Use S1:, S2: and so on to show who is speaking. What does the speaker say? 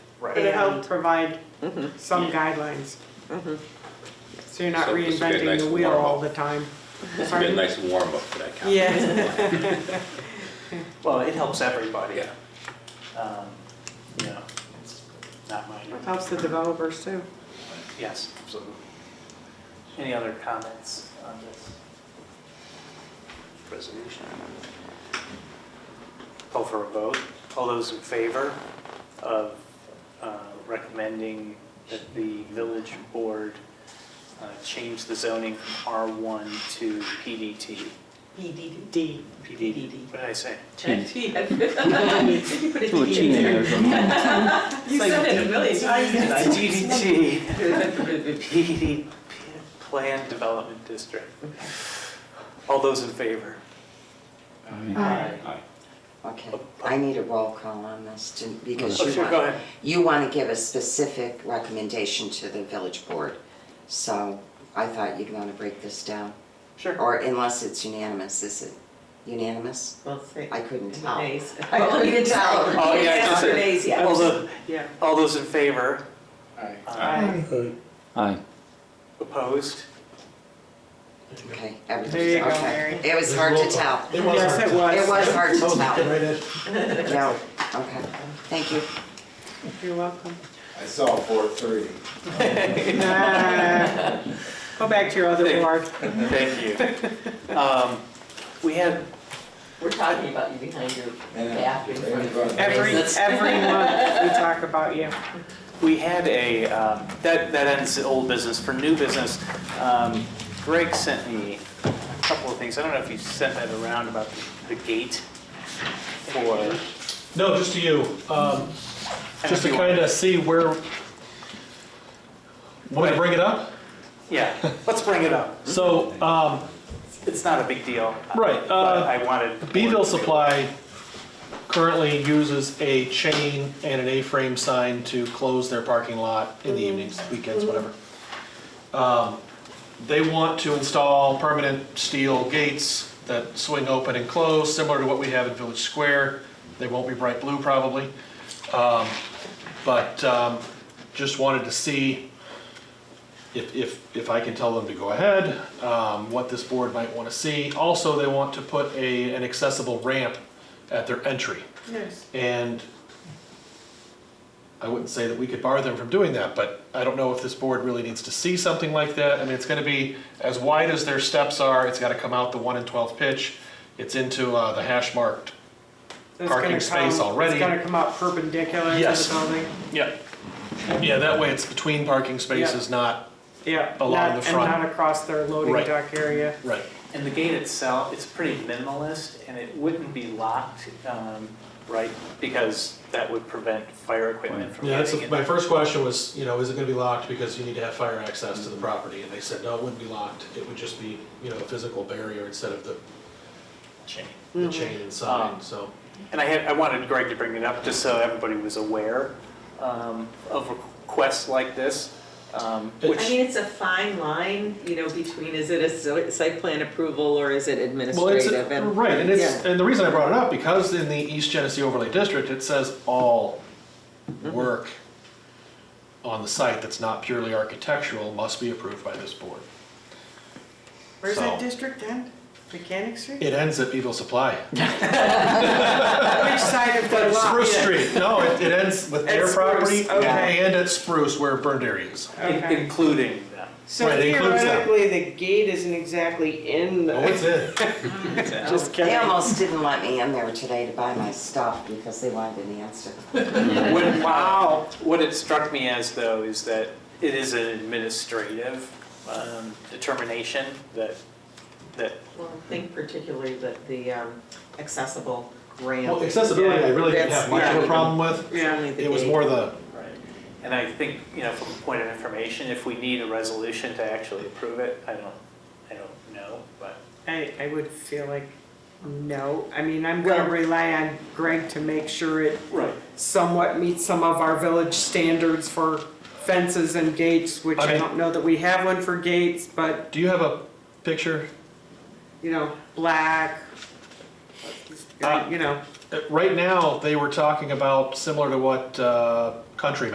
S1: Right.
S2: They help
S3: And-
S2: provide
S3: Mhm.
S2: some guidelines. So you're not
S4: So this would be a
S2: reinventing
S4: nice
S2: the wheel
S4: warm-up.
S2: all the time.
S4: It's been a
S2: Pardon?
S4: nice warm-up for that conversation.
S2: Yeah.
S1: Well, it helps everybody.
S4: Yeah.
S1: Um, You know, it's not minor.
S2: Helps the developers too.
S1: Yes, absolutely. Any other comments on this resolution? Call for a vote. All those in favor of uh, recommending that the village board uh, change the zoning from R1 to PDT?
S3: PDD.
S2: D.
S1: PDD. What did I say?
S3: T. You put a T in there. You said it a million
S1: Did I
S3: times.
S1: DDT? PD Plan Development District. All those in favor?
S2: Aye.
S5: Okay, I need a roll call on this to- because
S1: Oh,
S5: you
S1: sure, go
S5: want,
S1: ahead.
S5: you want to give a specific recommendation to the village board. So I thought you'd want to break this down,
S1: Sure.
S5: or unless it's unanimous, is it unanimous?
S3: Well, say-
S5: I couldn't tell.
S3: Nays.
S5: I couldn't even tell.
S1: Oh, yeah, I just said-
S3: Nays, yeah.
S1: All tho-
S2: Yeah.
S1: all those in favor? Aye.
S6: Aye.
S1: Opposed?
S5: Okay, everything,
S2: There you go,
S5: okay. It was
S7: There's
S5: hard
S7: roll
S5: to
S7: call.
S5: tell.
S7: It
S2: Yes,
S7: was.
S2: it was.
S5: It was hard to
S7: That was the
S5: tell.
S7: right answer.
S5: No, okay, thank you.
S2: You're welcome.
S8: I saw four thirty.
S2: Nah. Go back to your other board.
S1: Thank you. Um, We had,
S3: We're talking about you behind your back. in front of your
S2: Every,
S3: business.
S2: every month we talk about you.
S1: we had a, um, that, that ends the old business. For new business, um, Greg sent me a couple of things. I don't know if you sent that around about the- the gate for. and
S7: No, just to you, um,
S1: if
S7: just to
S1: you want-
S7: kind of see where, want to bring it up?
S1: Yeah, let's bring it up.
S7: So, um,
S1: It's not a big deal.
S7: Right,
S1: But
S7: uh,
S1: I wanted.
S7: Beville Supply currently uses a chain and an A-frame sign to close their parking lot in the evenings, weekends, whatever. Um, They want to install permanent steel gates that swing open and close, similar to what we have in Village Square. They won't be bright blue probably. Um, But um, just wanted to see if, if, if I can tell them to go ahead, um, what this board might want to see. Also, they want to put a, an accessible ramp at their entry.
S2: Yes.
S7: And I wouldn't say that we could bar them from doing that, but I don't know if this board really needs to see something like that. I mean, it's gonna be as wide as their steps are, it's gotta come out the one and twelfth pitch. It's into, uh, the hash marked. Parking space already.
S2: It's gonna come out perpendicular to the
S7: Yes.
S2: building.
S7: Yeah. Yeah, that way it's between parking spaces, not,
S2: Yeah.
S7: Along
S2: not-
S7: the front.
S2: And not across their loading
S7: Right.
S2: dock area.
S7: right.
S1: And the gate itself, it's pretty minimalist and it wouldn't be locked, um, right? Because that would prevent fire equipment from
S7: Yeah, that's,
S1: getting in.
S7: my first question was, you know, is it gonna be locked because you need to have fire access to the property? And they said, no, it wouldn't be locked, it would just be, you know, a physical barrier instead of the,
S1: Chain.
S7: the chain
S1: Um,
S7: inside, so.
S1: And I had, I wanted Greg to bring it up just so everybody was aware, um, of requests like this, um,
S7: It-
S3: I
S1: which,
S3: mean, it's a fine line, you know, between is it a so- site plan approval or is it
S7: Well, it's,
S3: administrative? and-
S7: right, and it's,
S3: yeah.
S7: and the reason I brought it up, because in the East Genesee Overlay District, it says all
S2: Mm-hmm.
S7: work on the site that's not purely architectural must be approved by this board.
S2: Where's that
S7: So-
S2: district end? Mechanic Street?
S7: It ends at Evil Supply.
S2: Which side of the lot?
S7: Spruce Street, no, it, it ends with
S2: At
S7: their
S2: Spruce,
S7: property
S2: okay.
S7: and at Spruce where burned area is.
S1: in-
S2: Okay.
S1: including them.
S2: So
S7: Right, it includes that.
S2: theoretically, the gate isn't exactly in the.
S7: Oh, it's in.
S2: Just
S5: They
S2: kidding.
S5: almost didn't let me in there today to buy my stuff because they wanted an answer.
S1: What-
S2: Wow.
S1: What it struck me as though is that it is an administrative um, determination that, that,
S3: Well, I think particularly that the um, accessible ramp.
S7: Well, accessibility, I really didn't
S3: That's-
S7: have much of
S3: yeah.
S7: a problem with.
S3: It's only the
S7: It was
S3: gate.
S7: more the,
S1: and I think, you know, from a point of information, if we need a resolution to actually approve it, I don't, I don't know, but.
S2: I, I would feel like, no, I mean, I'm gonna
S3: Well-
S2: rely on Greg to make sure it
S1: Right.
S2: somewhat meets some of our village standards for fences and gates, which I
S7: Okay.
S2: don't know that we have one for gates, but,
S7: do you have a picture?
S2: you know, black,
S7: Ah.
S2: you know.
S7: Uh, Right now, they were talking about similar to what uh, Country